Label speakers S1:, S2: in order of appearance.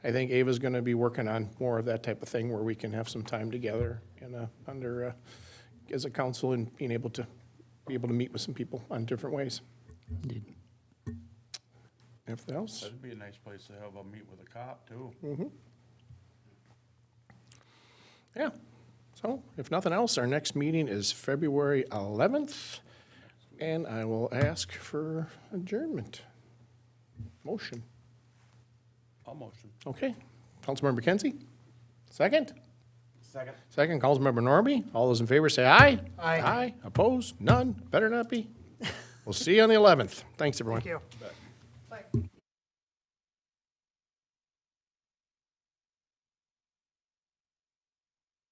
S1: I think Ava's going to be working on more of that type of thing where we can have some time together and uh, under, uh, as a council and being able to, be able to meet with some people on different ways.
S2: Indeed.
S1: Anything else?
S3: That'd be a nice place to have a meet with a cop, too.
S1: Yeah. So if nothing else, our next meeting is February 11th, and I will ask for adjournment. Motion.
S3: I'll motion.
S1: Okay. Councilmember Kenzie? Second?
S3: Second.
S1: Second, Councilmember Norby. All those in favor say aye. Aye. Aye. Opposed? None? Better not be. We'll see you on the 11th. Thanks, everyone.
S4: Thank you.